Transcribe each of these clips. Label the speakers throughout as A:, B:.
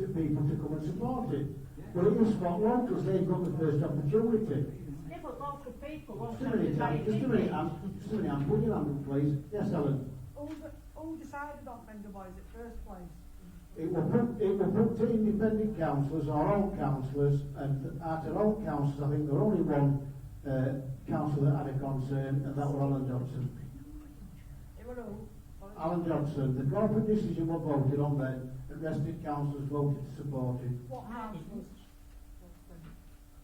A: to people to come and support it. Well, it was spot on because they got the first opportunity.
B: Yeah, but local people
A: Just
B: wasn't
A: a minute, Anne,
B: everybody.
A: just a minute, Anne, just a minute, Anne, put your hand up, please. Yes, Helen.
C: All, the, all decided on vendor wise at first place.
A: It will put, it will put to independent councillors, our own councillors, and at our own councillors, I think there only one uh, councillor that had a concern, and that was Alan Johnson.
C: They were all.
A: Alan Johnson, the corporate decision was voted on then, and rested councillors voted to support it.
C: What house was?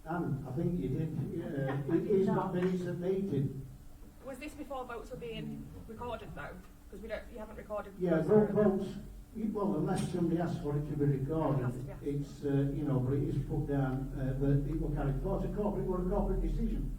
A: And I think you did, uh, it is not minutes at meeting.
D: Was this before votes were being recorded though? Because we don't, you haven't recorded.
A: Yeah,
D: votes,
A: vote,
D: have you?
A: votes, you- well, unless somebody asks for it to be recorded, it's, uh, you know, but it is put down, uh, that it will carry forward, It's a corporate, it was a corporate decision.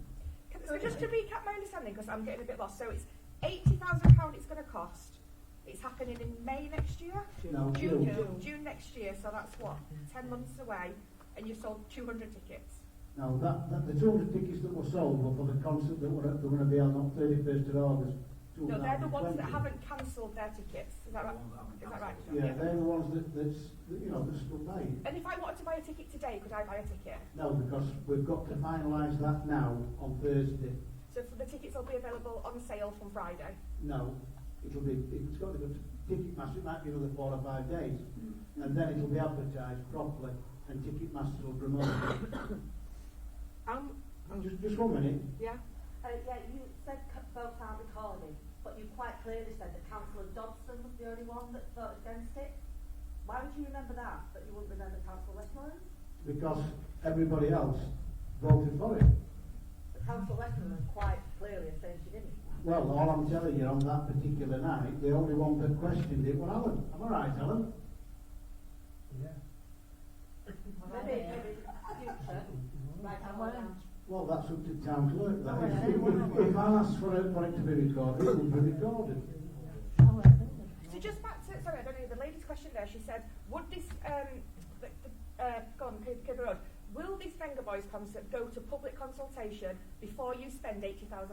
D: Can- So just to recap my understanding, because I'm getting a bit lost. So it's eighty thousand pound. It's going to cost. It's happening in May next year.
A: No,
D: June,
A: June.
D: June, next year. So that's what ten months away, and you sold two hundred tickets.
A: Now, that, that, the 200 tickets that were sold were for the concert that were, that were going to be held on 31st of August.
D: No, they're the ones
A: 2020.
D: that haven't cancelled their tickets. Is that right? Is that right? John?
A: Yeah, they're the ones that, that's, that, you know, that's still paying.
D: And if I wanted to buy a ticket today, could I buy a ticket?
A: No, because we've got to finalise that now on Thursday.
D: So for the tickets will be available on sale from Friday.
A: No, it'll be, it's got to go to Ticketmaster, it might be another four or five days. And then it'll be advertised properly and Ticketmaster will promote it.
D: Um,
A: Just, just one minute.
D: yeah.
E: Uh, yeah, you said c- both are recording, but you quite clearly said that Councillor Dodson was the only one that voted against it. Why would you remember that, but you wouldn't remember Councillor Westmoreland?
A: Because everybody else voted for it.
E: But Councillor Westmoreland quite clearly saying she didn't.
A: Well, all I'm telling you on that particular night, the only one that questioned it was Alan. Am I right, Alan?
E: Maybe, maybe in the future, right now, now.
A: Well, that's up to town clerk.
F: Oh, yeah,
A: That
F: they want
A: if,
F: it.
A: if I ask for it, for it to be recorded, it will be recorded.
D: So just back to, sorry, I don't know, the lady's question there, she said, would this, um, the, the, uh, go on, Cooper Cooper Road, will this Venga Boys concert go to public consultation before you spend £80,000?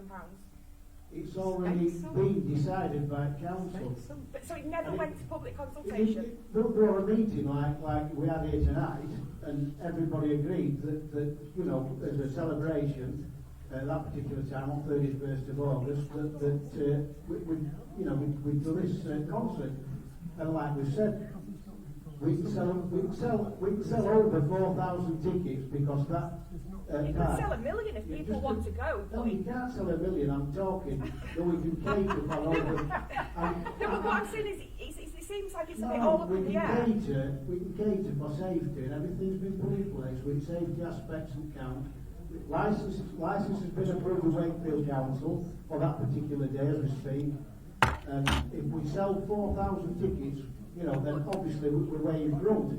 A: It's already been decided by council.
D: But so it never
A: Right.
D: went to public
A: It- it-
D: consultation?
A: it- There there were a meeting like, like we had here tonight, and everybody agreed that, that, you know, as a celebration, at that particular time, on 31st of August, that, that, uh, we, we, you know, we, we do this uh, concert. And like we said, we can sell, we can sell, we can sell over 4,000 tickets because that, uh,
D: You could
A: night-
D: sell a million if
A: Yeah,
D: people
A: just-
D: want to go,
A: No,
D: but
A: you
D: it,
A: can't sell a million, I'm talking, that we can cater for over. and-
D: no, but what I'm saying is, it, it, it seems like it's a bit
A: No,
D: all up in
A: we
D: the
A: can
D: air.
A: cater, we can cater for safety and everything's been put in place with safety aspects and count. License, license has been approved with Wakefield Council for that particular day as we speak. And if we sell four thousand tickets, you know, then obviously we- we're way in front.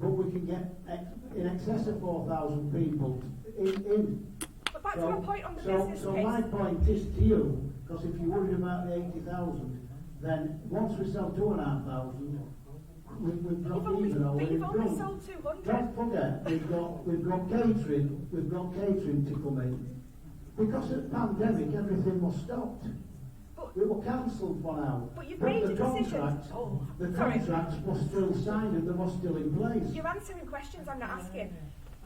A: But we can get ex- in excess of four thousand people in, in.
D: But back to
A: So-
D: my point on the
A: so,
D: business
A: so
D: case,
A: my point is to you, because if you're worried about the 80,000, then once we sell 2,500, we, we've
D: you've
A: dropped
D: only,
A: even or
D: but
A: we've
D: you've only
A: done.
D: sold 200.
A: Don't forget, we've got, we've got catering, we've got catering to come in. Because of the pandemic, everything was stopped.
D: But-
A: We were cancelled for now.
D: But you've made
A: the
D: a decision.
A: contracts-
D: Oh,
A: The
D: sorry.
A: contracts were still signed and they were still in place.
D: You're answering questions I'm not asking.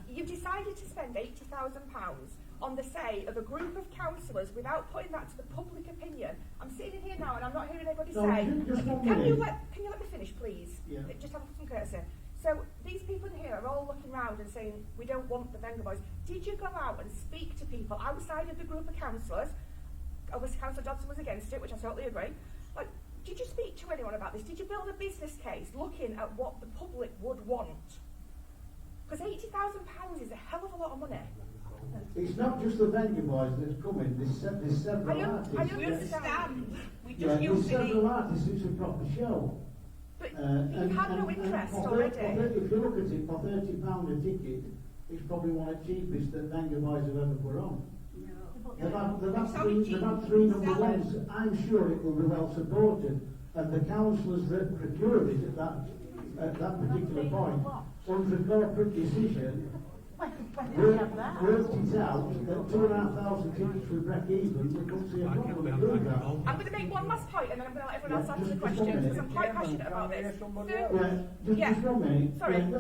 D: You've decided to spend £80,000 on the say of a group of councillors without putting that to the public opinion. I'm sitting in here now and I'm not hearing anybody
A: No,
D: say,
A: ju- just one
D: can you,
A: minute.
D: let, can you let me finish, please?
A: Yeah.
D: Just have some courtesy. So these people in here are all looking round and saying, we don't want the Venga Boys. Did you go out and speak to people outside of the group of councillors? Obviously, Councillor Dodson was against it, which I totally agree. Like, did you speak to anyone about this? Did you build a business case looking at what the public would want? Because eighty thousand pounds is a hell of a lot of money.
A: It's not just the venue boys that's coming, there's, se- there's
D: I
A: several
D: don't-
A: artists.
D: I don't
A: that-
D: understand.
F: We
A: Yeah,
F: just
A: there's
F: used to
A: several
F: be.
A: artists, it's a proper show.
D: But
A: Uh, and,
D: you had
A: and,
D: no
A: and
D: interest
A: for thir- for
D: already.
A: thir- if you look at it, for thirty pound a ticket, it's probably one of the cheapest that Bangor Boys have ever put on. They've had, they've had
F: It's
A: three,
F: only
A: they've had
F: cheap
A: three number
F: sellers.
A: ones, I'm sure it will be well supported, and the councillors that procured it at that, at that particular point, under corporate decision,
B: When, when did we have that?
A: Worked it out that two and a half thousand units would break even, we couldn't see a problem with doing that.
D: I'm going to make one last point and then I'm going to let everyone else
A: Yeah,
D: answer the
A: just- just one
D: question
A: minute.
D: because I'm quite passionate about this. Third-
A: Yeah, just,
D: Yeah.
A: just one minute.
D: Sorry.
A: Yeah,